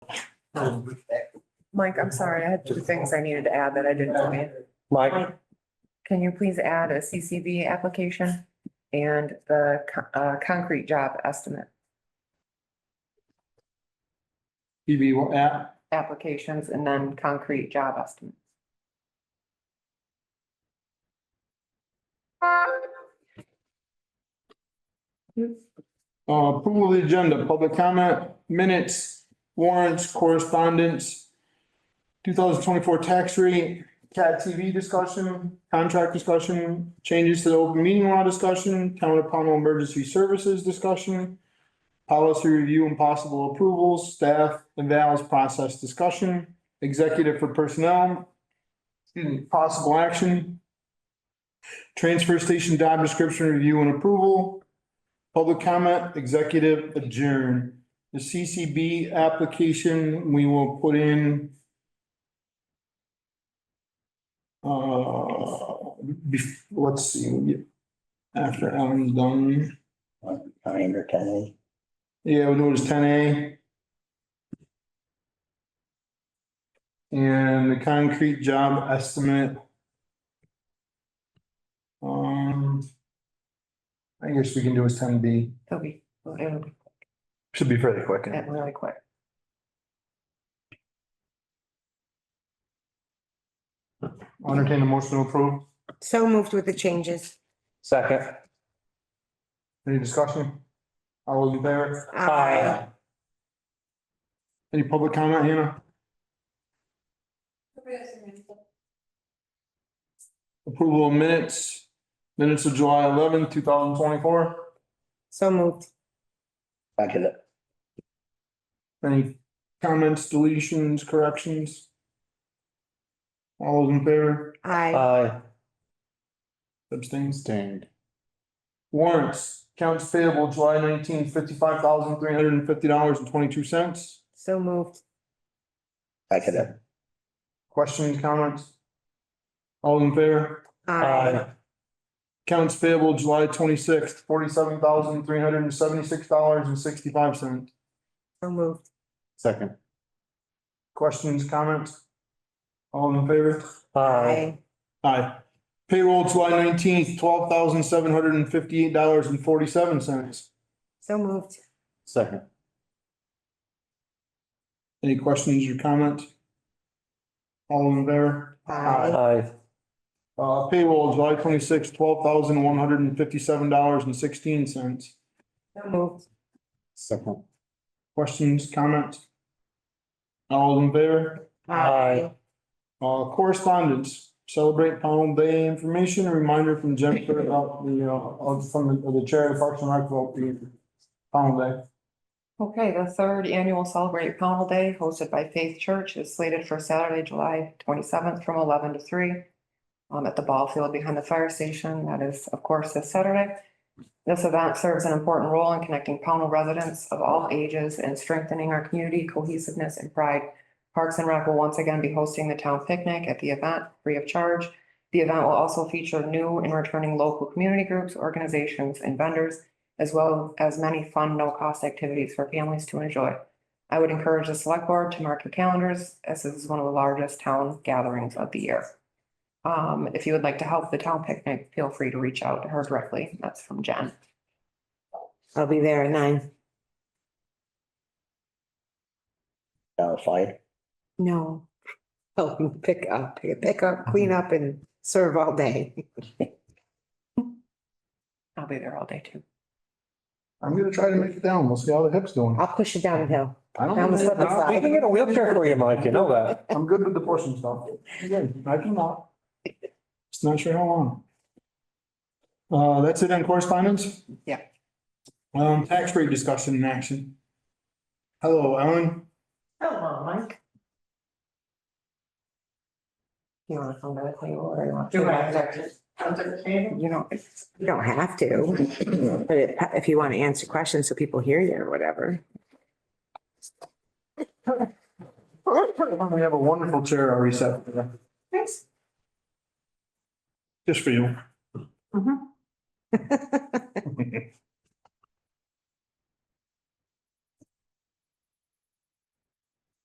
Mike, I'm sorry, I had two things I needed to add that I didn't know. Mike, Can you please add a CCB application and the co- uh, concrete job estimate PB, what app? applications and then concrete job estimate? Uh, approval of the agenda, public comment, minutes, warrants, correspondence, two thousand twenty-four tax rate, CAT TV discussion, contract discussion, changes to the open meeting law discussion, town of Pownell emergency services discussion, policy review and possible approvals, staff and vows process discussion, executive for personnel, excuse me, possible action, transfer station job description review and approval, Public comment, executive adjourn. The CCB application, we will put in. Uh, bef- let's see, after Alan's done, Nine or ten. yeah, we'll do it as ten A. And the concrete job estimate. Um. I guess we can do as ten B, It'll be, it'll be should be fairly quick. that really quick. I'll Entertain a motion to approve. So moved with the changes. Second. Any discussion? All those in favor? Aye. Any public comment, Hannah? Approval of minutes, minutes of July eleventh, two thousand twenty-four. So moved. Second it. Any comments, deletions, corrections? All those in favor? Aye. Aye. Abstain? Warrants, accounts payable July nineteenth, fifty-five thousand, three hundred and fifty dollars and twenty-two cents. So moved. Second it. Questions, comments? All in favor? Aye. Accounts payable July twenty-sixth, forty-seven thousand, three hundred and seventy-six dollars and sixty-five cents. So moved. Second. Questions, comments? All in favor? Aye. Aye. Payroll July nineteenth, twelve thousand, seven hundred and fifty-eight dollars and forty-seven cents. So moved. Second. Any questions or comments? All in favor? Aye. Aye. Uh, payroll July twenty-sixth, twelve thousand, one hundred and fifty-seven dollars and sixteen cents. So moved. Second. Questions, comments? All in favor? Aye. Uh, correspondence, celebrate Pownell Day information, a reminder from Jennifer about the, uh, of- from the- the chair of Parks and Rec about the Pownell Day. Okay, the third annual Celebrate Pownell Day hosted by Faith Church is slated for Saturday, July twenty-seventh from eleven to three. um, at the ball field behind the fire station. That is, of course, this Saturday. This event serves an important role in connecting Pownell residents of all ages and strengthening our community cohesiveness and pride. Parks and Rec will once again be hosting the town picnic at the event free of charge. The event will also feature new and returning local community groups, organizations, and vendors as well as many fun, no-cost activities for families to enjoy. I would encourage the select board to mark your calendars as this is one of the largest town gatherings of the year. Um, if you would like to help the town picnic, feel free to reach out to her directly. That's from Jen. I'll be there at nine. Uh, fine. No. Oh, pick up, pick up, clean up and serve all day. I'll be there all day too. I'm gonna try to make it down, we'll see how the hip's doing. I'll push it down the hill. I don't- I'm a slip and slide. We can get a wheelchair for you, Mike, you know that. I'm good with the portion stuff. Again, I can not. Just not sure how long. Uh, that's it on correspondence? Yeah. Um, tax rate discussion in action. Hello, Ellen. Hello, Mike. You wanna come to the table or you want? Do to? You know, it's- You don't have to, but if- if you want to answer questions so people hear you or whatever. We have a wonderful chair already set. for you. Thanks. Just for you.